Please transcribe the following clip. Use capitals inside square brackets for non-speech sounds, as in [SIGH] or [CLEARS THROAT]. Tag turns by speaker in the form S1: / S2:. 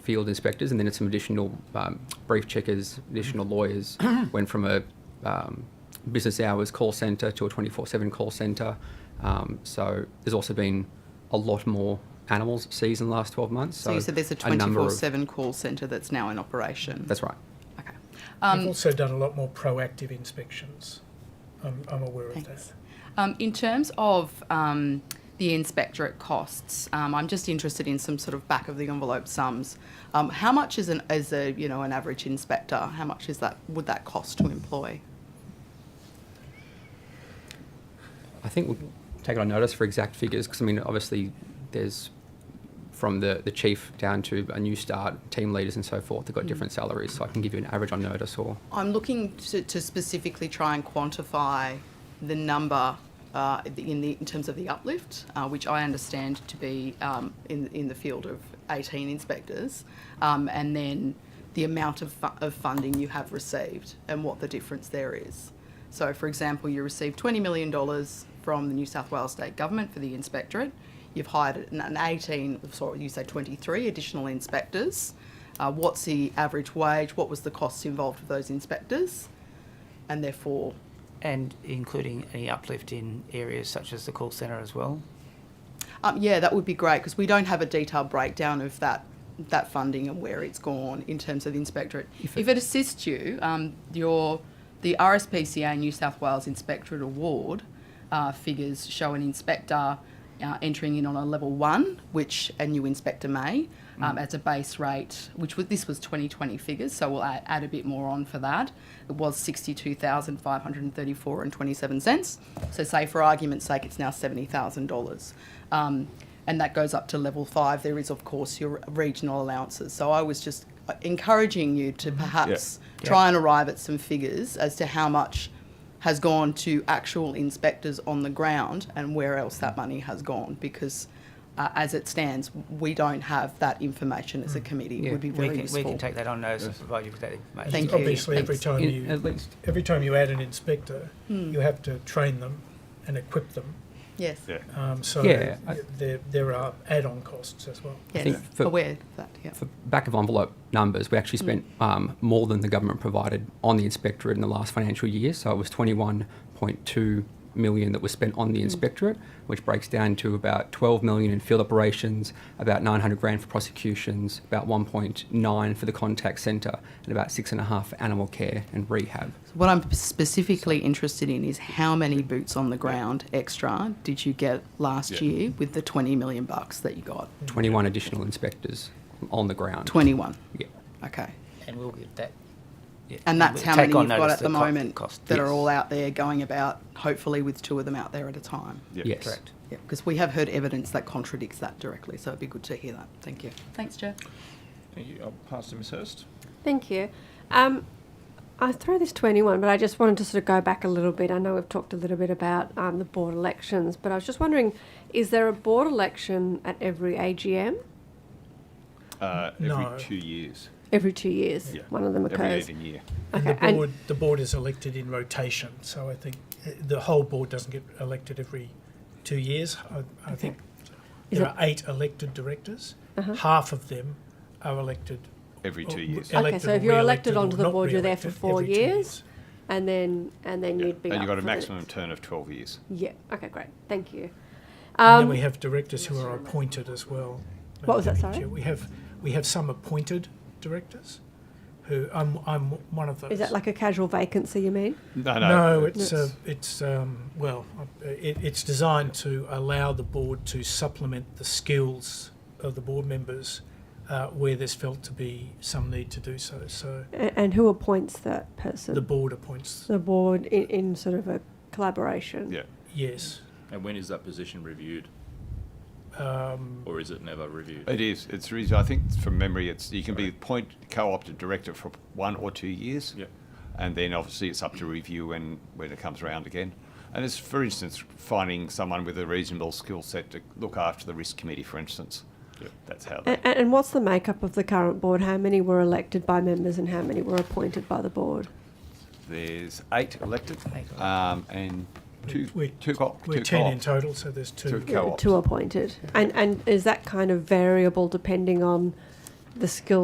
S1: field inspectors, and then it's some additional um, brief checkers, additional
S2: [CLEARS THROAT]
S1: lawyers. went from a um, business hours call centre to a 24 7 call centre. Um, so there's also been a lot more animals seized in the last 12 months.
S2: So, you said there's a
S1: number of-
S2: 24/7 call centre that's now in operation.
S1: That's right.
S2: okay.
S3: We've
S2: Um,
S3: also done a lot more proactive inspections. I'm, I'm aware of
S2: Thanks.
S3: that.
S2: um, in terms of um, the inspectorate costs, um, I'm just interested in some sort of back of the envelope sums. Um, how much is an as a you know an average inspector? How much is that would that cost to employ?
S1: I think we'll take it on notice for exact figures because I mean, obviously, there's from the, the chief down to a new start, team leaders and so forth, they've
S2: Mm.
S1: got different salaries. So I can give you an average on notice or
S2: I'm looking to, to specifically try and quantify the number uh, in, the, in terms of the uplift, uh, which I understand to be um, in, in the field of 18 inspectors, um, and then the amount of, fu- of funding you have received and what the difference there is. So, for example, you received $20 million from the New South Wales State Government for the inspectorate. You've hired an- an 18, sorry, you say 23 additional inspectors. Uh, what's the average wage? What was the costs involved with those inspectors? And therefore,
S4: And including any uplift in areas such as the call centre as well.
S2: um, yeah, that would be great because we don't have a detailed breakdown of that that funding and where it's gone in terms of the inspectorate. If it, assists you, um, your the RSPCA New South Wales Inspectorate Award uh, figures show an inspector. Uh, entering in on a level one, which a new inspector may, um, as a base rate, which was this was 2020 figures, so we'll add, add a bit more on for that. It was 62,534 and 27 cents. So say for argument's sake, it's now $70,000. Um, and that goes up to level five. There is, of course, your regional allowances. So I was just uh, encouraging you to perhaps
S4: Mm-hmm. Yeah.
S2: try and arrive at some figures as to how much has gone to actual inspectors on the ground and where else that money has gone because. Uh, as it stands, we don't have that information
S4: Mm.
S2: as a committee. It would be very
S4: we can,
S2: useful.
S4: we can take that on notice and provide you with that information.
S2: Thank you.
S3: Obviously, every
S2: Thanks.
S3: time
S1: in, at
S3: you,
S1: least.
S3: every time you add an inspector, you have to train them and equip them.
S2: yes.
S5: Yeah.
S3: Um, so
S1: Yeah, I-
S3: there, there are add-on costs as well.
S1: I
S2: Yes,
S1: think for-
S2: aware of that. Yeah.
S1: For back of envelope numbers, we actually spent um, more than the government provided on the inspectorate in the last financial year. So it was 21.2 million that was spent on the inspectorate, which breaks down to about 12 million in field operations, about 900 grand for prosecutions, about 1.9 for the contact centre, and about six and a half for animal care and rehab.
S2: What I'm specifically interested in is how many boots on the ground extra did you get last
S5: Yeah.
S2: year with the 20 million bucks that you got?
S1: 21 additional inspectors on the ground.
S2: 21.
S1: Yeah.
S2: Okay.
S4: And we'll get that. yeah,
S2: And that's
S4: we'll
S2: how
S4: take
S2: many
S4: on
S2: you've got
S4: notice
S2: at the
S4: co-
S2: moment
S4: cost.
S2: that are
S4: Yes.
S2: all out there going about, hopefully with two of them out there at a time.
S5: Yeah.
S1: Yes.
S4: Correct.
S2: Yeah, because we have heard evidence that contradicts that directly, so it'd be good to hear that. Thank you. Thanks, Jeff.
S5: Thank you. I'll pass to Ms. Hurst.
S6: Thank you. Um, I throw this to anyone, but I just wanted to sort of go back a little bit. I know we've talked a little bit about um, the board elections, but I was just wondering, is there a board election at every AGM?
S5: Uh, every
S3: No.
S5: two years.
S6: Every two years,
S5: Yeah.
S6: one of them
S5: Every
S6: occurs.
S5: even year.
S3: And the
S6: Okay, and-
S3: board, the board is elected in rotation, so I think uh, the whole board doesn't get elected every two years. I, I think
S6: Is
S3: there
S6: it-
S3: are eight elected directors. Half of them are elected.
S5: Every
S3: or
S5: two years.
S3: Oh, elected
S6: Okay, so
S3: or
S6: if you're elected
S3: re-elected or
S6: onto the
S3: not
S6: board, you're there for
S3: re-elected
S6: four
S3: every two
S6: years? And then and then
S5: Yeah.
S6: you'd be
S5: and
S6: up
S5: you've got a
S6: for the
S5: maximum
S6: next-
S5: turn of 12 years.
S6: Yeah. Okay. Great. Thank you.
S3: And then
S6: Um,
S3: we have directors who are appointed as well.
S6: What was that,
S3: Madam Chair.
S6: sorry?
S3: We have, we have some appointed directors who, I'm, I'm one of those.
S6: is that like a casual vacancy? You mean?
S5: No, no.
S3: No, it's, uh, it's, um, well, uh, it, it's designed to allow the board to supplement the skills of the board members uh, where there's felt to be some need to do so. So
S6: And, and who appoints that person?
S3: the board appoints,
S6: The board in, in sort of a collaboration.
S5: Yeah.
S3: yes.
S7: And when is that position reviewed,
S3: Um,
S7: or is it never reviewed?
S5: It is. It's reason. I think from memory, it's you can be point co-opted director for one or two years,
S7: Yep.
S5: and then obviously it's up to review when when it comes around again. And it's for instance finding someone with a reasonable skill set to look after the risk committee, for instance. That's how.
S6: And,
S5: That,
S6: and what's the makeup of the current board? How many were elected by members and how many were appointed by the board?
S5: there's eight elected,
S4: Eight
S5: um, and two
S3: we're-
S5: two co-
S3: We're
S5: two
S3: 10 in
S5: co-ops.
S3: total, so there's two.
S5: Two co-ops.
S6: Two appointed. And, and is that kind of variable depending on the skill